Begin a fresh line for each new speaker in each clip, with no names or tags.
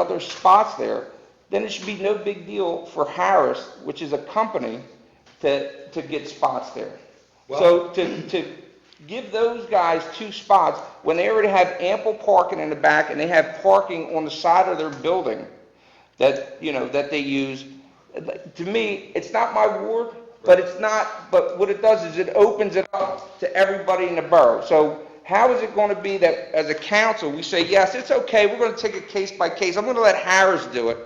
other spots there, then it should be no big deal for Harris, which is a company, to, to get spots there. So to, to give those guys two spots, when they already have ample parking in the back and they have parking on the side of their building that, you know, that they use, to me, it's not my ward, but it's not, but what it does is it opens it up to everybody in the borough. So how is it going to be that as a council, we say, yes, it's okay, we're going to take it case by case, I'm going to let Harris do it.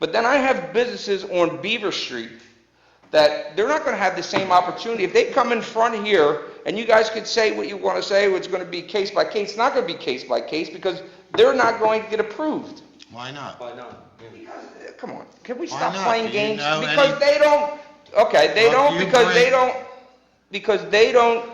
But then I have businesses on Beaver Street that they're not going to have the same opportunity. If they come in front here, and you guys could say what you want to say, it's going to be case by case, it's not going to be case by case, because they're not going to get approved.
Why not?
Why not?
Because, uh, Come on, can we
Why
stop
not? Do
playing
you
games?
know any-
Because they don't, okay, they
Well,
don't,
you
because they
bring-
don't, because they don't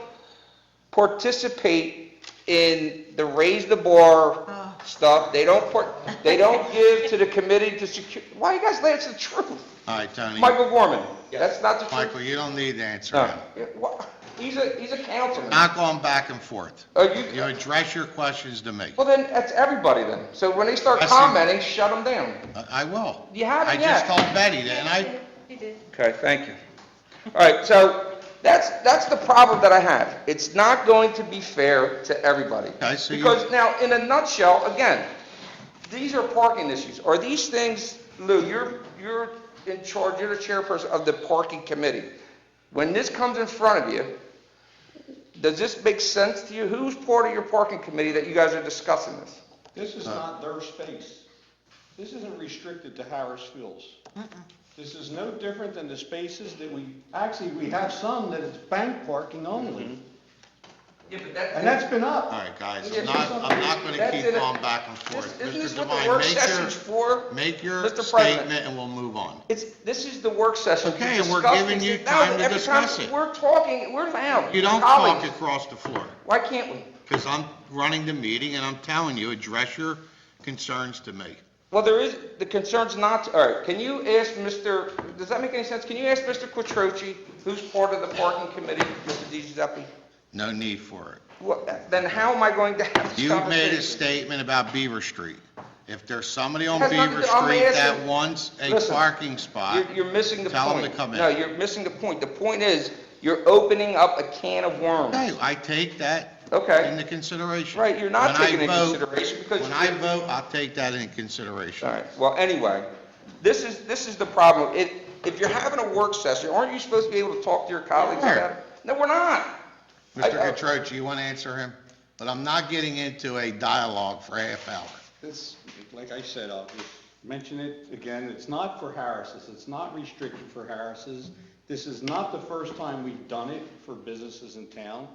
participate in the raise the
Ah.
bar stuff, they don't, par- they don't give to the committee to secure, why you guys, that's the truth.
All right, Tony.
Michael Gorman,
Yes.
that's not the truth.
Michael, you don't need to answer
No.
him.
Yeah, wha- He's a, he's a councilman.
Not going back and forth.
Are
You
you,
address your questions to me.
well, then, that's everybody then. So when they start
I see.
commenting, shut them down.
I- I will.
You haven't
I
yet.
just told Betty that, and I,
You did.
Okay, thank you. All right, so that's, that's the problem that I have. It's not going to be fair to everybody.
Okay, so you-
Because now, in a nutshell, again, these are parking issues. Are these things, Lou, you're, you're in charge, you're the chairperson of the parking committee. When this comes in front of you, does this make sense to you? Who's part of your parking committee that you guys are discussing this?
This is not their space. This isn't restricted to Harris Fields. This is no different than the spaces that we, actually, we have some that it's bank parking only.
Yeah, but
And that's been up.
all right, guys,
Yeah,
I'm not, I'm not gonna
that's
keep
in a-
going back and
This-
forth.
Isn't
Mr.
this what
Devine,
the work
make your-
session's for?
Make your
Mr. President.
statement and we'll move on.
It's, this is the work session. to
Okay, and we're
discuss
giving
these-
you
No,
time to
every time
discuss it.
We're talking, we're loud.
You don't talk
Colleagues,
across the floor,
Why can't we?
because I'm running the meeting and I'm telling you, address your concerns to me.
Well, there is, the concern's not, all right, can you ask Mr., does that make any sense? Can you ask Mr. Quattrochi, who's part of the parking committee, Mr. Di Giuseppe?
No need for it.
What, then how am I going to have this
You
conversation?
made a statement about Beaver Street. If there's somebody on
Has nothing
Beaver
to- I'm
Street that
asking-
wants a
Listen,
parking spot,
You're, you're missing the point.
Tell 'em to come in.
No, you're missing the point. The point is, you're opening up a can of worms.
okay, I take that
Okay.
into consideration.
Right, you're not
When I
taking into
vote-
consideration because
When
you-
I vote, I'll take that into consideration.
All right, well, anyway, this is, this is the problem. If, if you're having a work session, aren't you supposed to be able to talk to your colleagues
Sure.
about it? No, we're not.
Mr.
I- I-
Catroci, you want to answer him? But I'm not getting into a dialogue for a half hour.
It's, like I said, I'll just mention it again, it's not for Harris's, it's not restricted for Harris's. This is not the first time we've done it for businesses in town.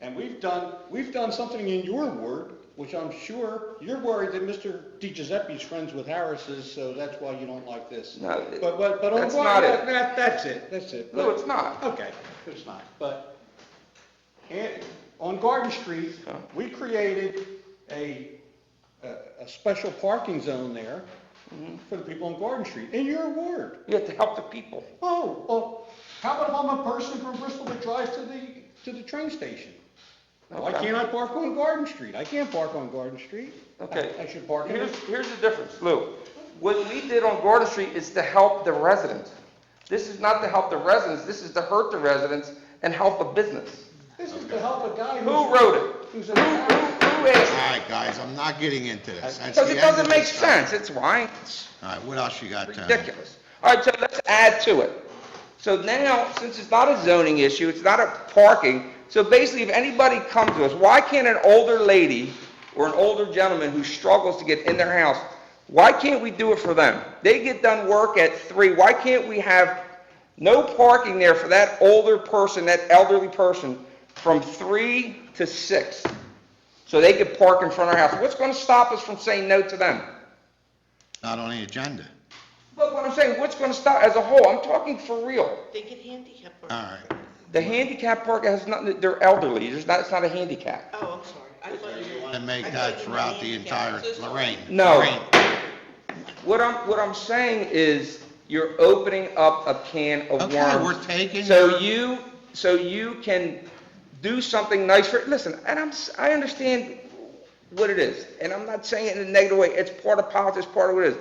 And we've done, we've done something in your ward, which I'm sure you're worried that Mr. Di Giuseppe's friends with Harris's, so that's why you don't like this.
No,
But, but, but. on
that's
one-
not it.
that- that's it, that's it.
No,
But-
it's not.
Okay, it's not, but. And on Garden Street, we created a, a, a special parking zone there
Mm-hmm.
for the people on Garden Street, in your ward.
You have to help the people.
Oh, well, how about if I'm a person from Bristol that drives to the, to the train station? Why
Okay.
can't I park on Garden Street? I can't park on Garden Street. I-
Okay.
I should park in
Here's,
it.
here's the difference, Lou. What we did on Gordon Street is to help the residents. This is not to help the residents, this is to hurt the residents and help a business.
This is to help a guy who's.
Who wrote it? Who,
Who's
who,
a-
who
All
asked?
right, guys, I'm not getting into this. That's
Because
the
it
end of
doesn't make
this stuff.
sense, it's why. It's-
All right, what else you got, Tony?
ridiculous. All right, so let's add to it. So now, since it's not a zoning issue, it's not a parking, so basically, if anybody comes to us, why can't an older lady or an older gentleman who struggles to get in their house, why can't we do it for them? They get done work at three, why can't we have no parking there for that older person, that elderly person, from three to six? So they could park in front of our house. What's gonna stop us from saying no to them?
Not on the agenda.
But what I'm saying, what's gonna stop, as a whole, I'm talking for real.
They get handicapped.
All right.
The handicap park has nothing, they're elderly, there's not, it's not a handicap.
Oh, I'm sorry. I thought you
You
meant-
want to
I
make
thought
that
you meant
throughout the
handicapped.
entire,
I'm so sorry.
Lorraine?
No.
Lorraine,
What I'm, what I'm saying is, you're opening up a can of worms.
Okay, we're taking
So
your-
you, so you can do something nice for, listen, and I'm, s- I understand what it is. And I'm not saying it in a negative way, it's part of politics, part of what it is.